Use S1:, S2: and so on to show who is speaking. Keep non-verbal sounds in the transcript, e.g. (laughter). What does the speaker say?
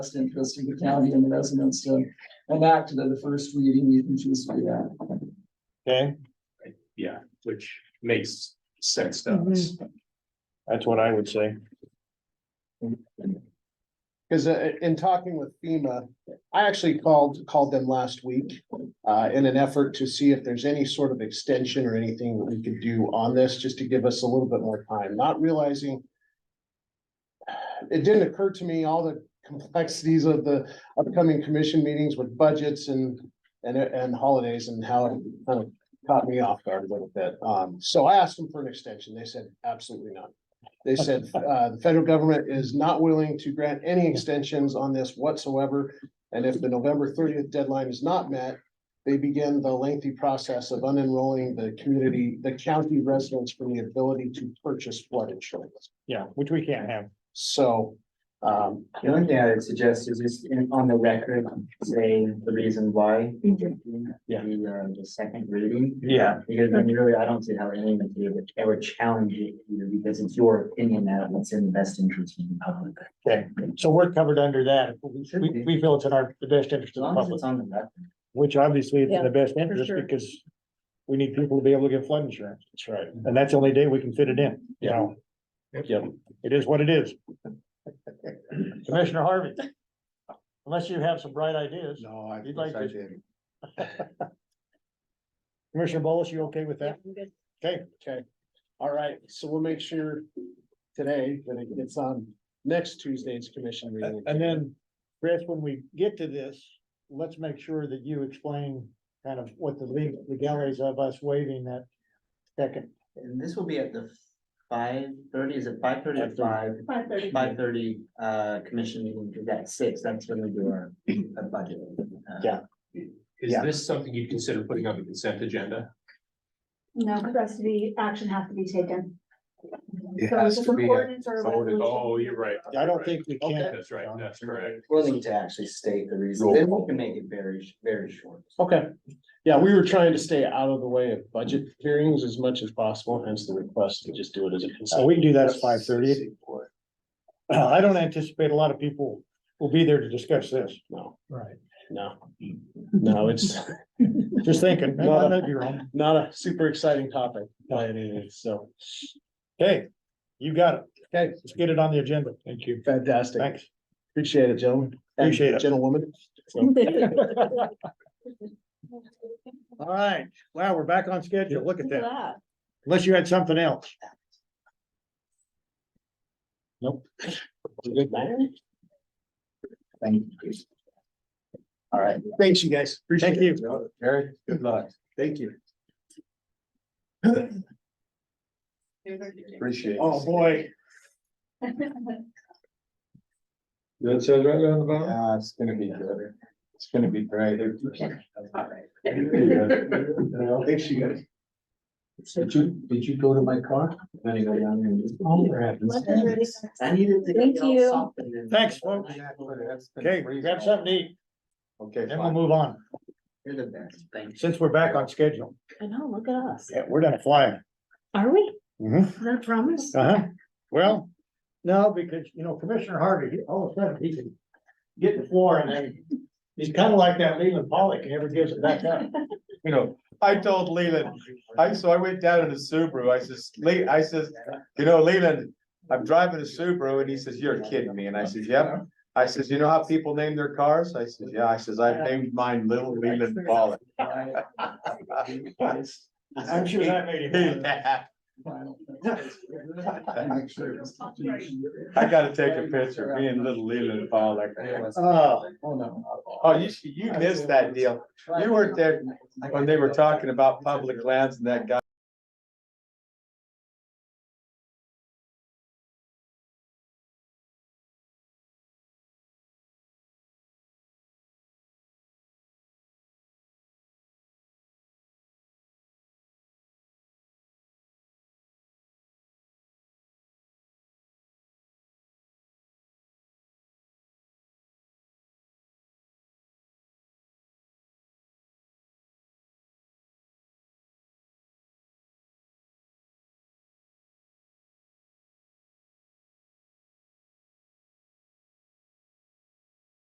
S1: best interest of the county and the residents to enact it at the first reading, you can choose to do that.
S2: Okay,
S3: Yeah, which makes sense to us.
S2: that's what I would say.
S4: Cause uh, in talking with FEMA, I actually called, called them last week, uh, in an effort to see if there's any sort of extension or anything that we could do on this, just to give us a little bit more time, not realizing. It didn't occur to me, all the complexities of the upcoming commission meetings with budgets and, and, and holidays and how it kind of caught me off guard a little bit. Um, so I asked them for an extension. They said absolutely not. They said, uh, the federal government is not willing to grant any extensions on this whatsoever. And if the November thirtieth deadline is not met, they begin the lengthy process of unenrolling the community, the county residents from the ability to purchase flood insurance.
S2: Yeah, which we can't have.
S4: So, um,
S5: The only thing I would suggest is just in, on the record, saying the reason why.
S2: Yeah.
S5: The, uh, the second reading.
S2: Yeah.
S5: Because I mean, really, I don't see how anyone could ever- ever challenge it either, because it's your opinion that what's in the best interest of the public.
S2: Okay, so we're covered under that. We, we feel it's in our, the best interest of the
S5: As long as
S2: public,
S5: it's on the record.
S2: which obviously it's in the best interest
S6: sure.
S2: because we need people to be able to get flood insurance.
S5: That's right.
S2: And that's the only day we can fit it in, you know?
S3: Yep.
S2: It is what it is. Commissioner Harvey. Unless you have some bright ideas.
S7: No, I.
S2: You'd like
S7: wish I
S2: to-
S7: did.
S2: Commissioner Bolus, you okay with that? Okay,
S4: all right, so we'll make sure today that it gets on next Tuesday's commission meeting.
S2: and then Chris, when we get to this, let's make sure that you explain kind of what the legal legalities of us waiving that second
S5: And this will be at the five thirty, is it five thirty or five?
S6: Five thirty.
S5: Five thirty, uh, commission meeting, because at six, that's when we do our, our budget. uh,
S2: Yeah.
S3: Is
S2: Yeah.
S3: this something you'd consider putting on the consent agenda?
S6: No, the rest of the action has to be taken.
S7: It
S6: So
S7: has
S6: it's just
S7: to
S6: an
S7: be
S6: ordinance or a
S7: voted.
S6: resolution.
S3: Oh, you're right.
S2: I don't think we can.
S3: That's right, that's correct.
S5: Willing to actually state the reason,
S7: Roll
S5: then we
S7: call.
S5: can make it very, sh- very short.
S4: Okay, yeah, we were trying to stay out of the way of budget hearings as much as possible, hence the request to just do it as a.
S2: So
S4: consent.
S2: Uh, we can do that at five thirty. Uh, I don't anticipate a lot of people will be there to discuss this.
S4: No,
S2: Right.
S4: no, no, it's
S2: Just thinking, man, I might be wrong.
S4: not a super exciting topic by any means, so
S2: Okay, you got it.
S4: Okay.
S2: Let's get it on the agenda. Thank you.
S4: fantastic.
S2: Thanks.
S4: Appreciate it, gentlemen. And
S2: Appreciate it.
S4: Gentlewoman.
S2: All right. Wow, we're back on schedule. Look at
S6: Look at
S2: that.
S6: that.
S2: Unless you had something else.
S5: Thank you. All right.
S4: Thanks, you guys.
S2: Thank
S4: Appreciate it.
S2: you.
S7: Eric, good luck. Thank you. Appreciate it.
S2: Oh, boy.
S7: That says right on the bottom? Yeah, it's gonna be good. It's gonna be great. Thanks, you guys. Did you, did you go to my car?
S5: Then you go down there and just- I
S6: Thank
S5: needed to.
S6: Thank
S5: get y'all
S6: you.
S5: something and-
S2: Thanks, folks. Okay, grab something to eat,
S7: Okay.
S2: then we'll move on,
S5: You're the best, thank you.
S2: since we're back on schedule.
S6: I know, look at us.
S2: Yeah, we're done flying.
S6: Are we?
S2: Mhm.
S6: Is that a promise?
S2: Uh-huh, well, no, because, you know, Commissioner Harvey, he- all of a sudden, he can get the floor and then. He's kind of like that Leland Pollock, he never gives it back up.
S7: You know, I told Leland, I, so I went down in a Subaru, I says, Lee, I says, you know, Leland, I'm driving a Subaru, and he says, you're kidding me, and I says, yep. I says, you know how people name their cars? I says, yeah, I says, I've named mine Little Leland Ball.
S2: I'm sure
S7: (laughs)
S2: that made him.
S7: I gotta take a picture, me and Little Leland Ball, like,
S2: Oh,
S1: Oh, no.
S7: oh, you, you missed that deal, you weren't there when they were talking about public lands and that guy